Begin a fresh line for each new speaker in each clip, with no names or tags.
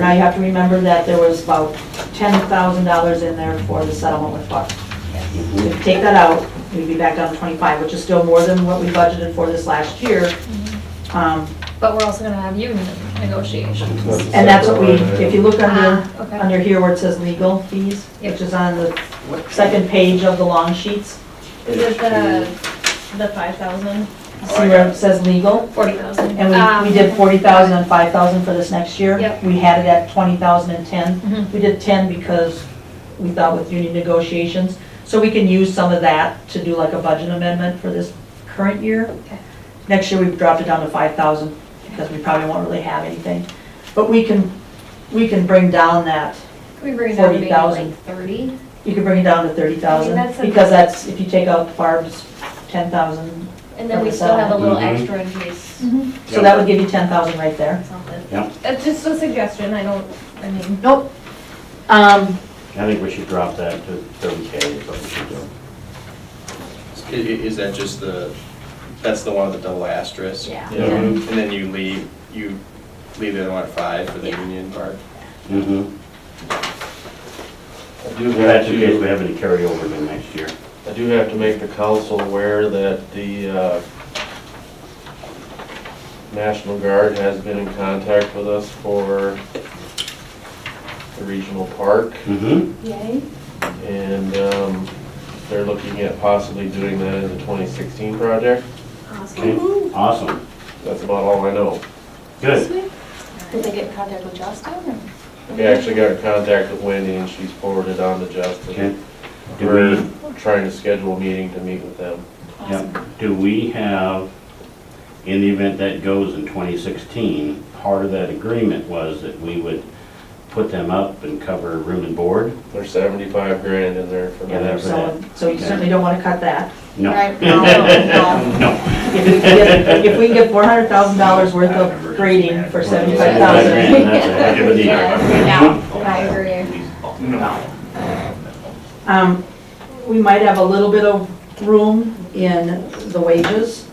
And I have to remember that there was about ten thousand dollars in there for the settlement with Buck. If we take that out, we'd be back down to twenty-five, which is still more than what we budgeted for this last year. Um,
But we're also gonna have union negotiations.
And that's what we, if you look under,
Ah, okay.
under here where it says legal fees, which is on the second page of the long sheets,
Is it the, the five thousand? Um,
see where it says legal?
Forty thousand.
And we, we did forty thousand and five thousand for this next year.
Yep.
We had it at twenty thousand and ten.
Mm-hmm.
Mhm.
We did ten because we thought with union negotiations. So we can use some of that to do like a budget amendment for this current year.
Okay.
Next year, we've dropped it down to five thousand because we probably won't really have anything. But we can, we can bring down that,
Can we bring it down to maybe
40,000.
like thirty?
you can bring it down to thirty thousand.
I mean, that's a-
Because that's, if you take out Barb's ten thousand,
And then we still have a little
Mhm.
extra in case
Mm-hmm.
so that would give you ten thousand right there.
something.
Yeah.
It's just a suggestion, I don't, I mean,
Nope. Um,
I think we should drop that to thirty K is what we should do.
I- i- Is that just the, that's the one with the double asterisk?
yeah.
Yeah.
And then you leave, you leave the other one at five for the union part?
Mm-hmm.
I do
Well,
have
that's in case we
to,
have any carryover to next year.
I do have to make the council aware that the uh, National Guard has been in contact with us for the regional park,
Mm-hmm.
Yay.
and um, they're looking at possibly doing that in the 2016 project.
Awesome.
Okay, awesome,
That's about all I know.
good.
Did they get in contact with Justin? or-
We actually got in contact with Wendy, and she's forwarded on to
Okay.
Justin.
Do
We're
we,
trying to schedule a meeting to meet with them.
yeah, do we have, in the event that goes in twenty sixteen, part of that agreement was that we would put them up and cover room and board?
There's 75 grand in there for
Yeah,
that.
that's-
so, so you certainly don't wanna cut that.
No.
Right.
No, no.
No.
If we can get, if we can get four hundred thousand dollars worth of grading for seventy-five thousand,
That's a heck of a deal.
No,
I agree.
um, we might have a little bit of room in the wages.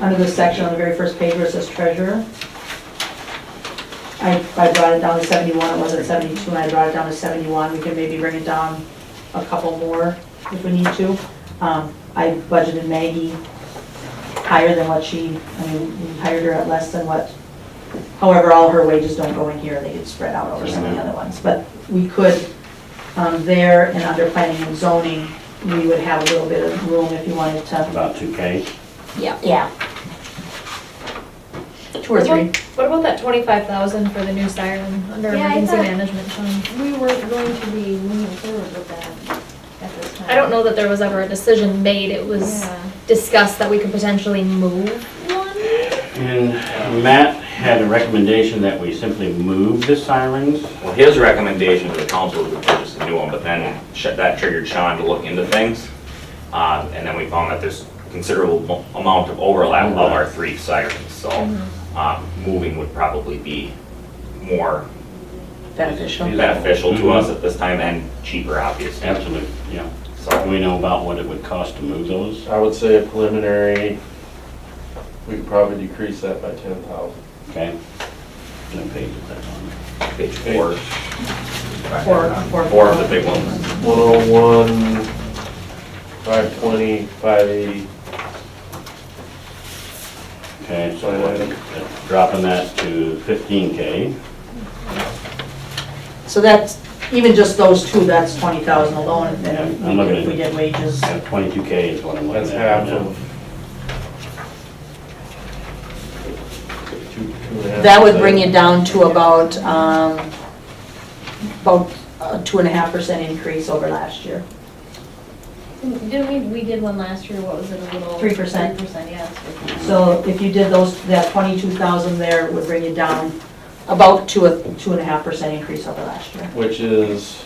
Under this section on the very first page where it says treasurer. I, I brought it down to seventy-one, it was at seventy-two, and I brought it down to seventy-one, we can maybe bring it down a couple more if we need to. Um, I budgeted Maggie higher than what she, I mean, we hired her at less than what, however, all her wages don't go in here, they get spread out over some of the other ones. But we could, um, there and under planning and zoning, we would have a little bit of room if you wanted to.
About two K.
Yeah.
Yeah. Two or three.
What about that twenty-five thousand for the new siren under
Yeah, I
emergency
thought-
management fund?
We weren't going to be moving forward with that at this time.
I don't know that there was ever a decision made, it was
Yeah.
discussed that we could potentially move one.
And Matt had a recommendation that we simply move the sirens.
Well, his recommendation to the council was to purchase a new one, but then sh- that triggered Sean to look into things. Uh, And then we found that there's considerable mo- amount of overlap of our three sirens, so um, moving would probably be more
Beneficial.
beneficial to us at this time and cheaper, obviously.
Absolutely, yeah. Do
So,
we know about what it would cost to move those?
I would say a preliminary, we could probably decrease that by ten thousand.
Okay. No page is that on?
page four.
Four, four.
Four of the big ones.
One oh one, five twenty, five eighty.
Okay, so we're dropping that to fifteen K.
So that's, even just those two, that's twenty thousand alone, and then if
I'm
we
looking
did- if we
at-
did wages.
Twenty-two K is what I'm
That's
looking at
half
right now.
of. two- two and a half
That would bring
percent.
it down to about, um, about a two and a half percent increase over last year.
Didn't we, we did one last year, what was it, a little?
3%.
Three percent, yes.
So if you did those, that twenty-two thousand there would bring it down about to a two and a half percent increase over last year.
Which is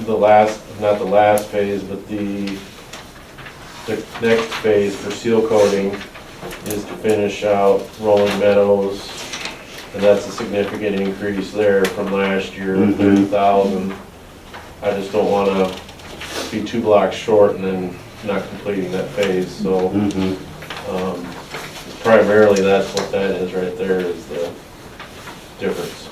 the last, not the last phase, but the, the next phase for seal coating is to finish out Rolling Meadows. And that's a significant increase there from last year,
Mhm.
thirty thousand. I just don't wanna be two blocks short and then not completing that phase, so,
Mhm.
um, primarily that's what that is right there, is the difference.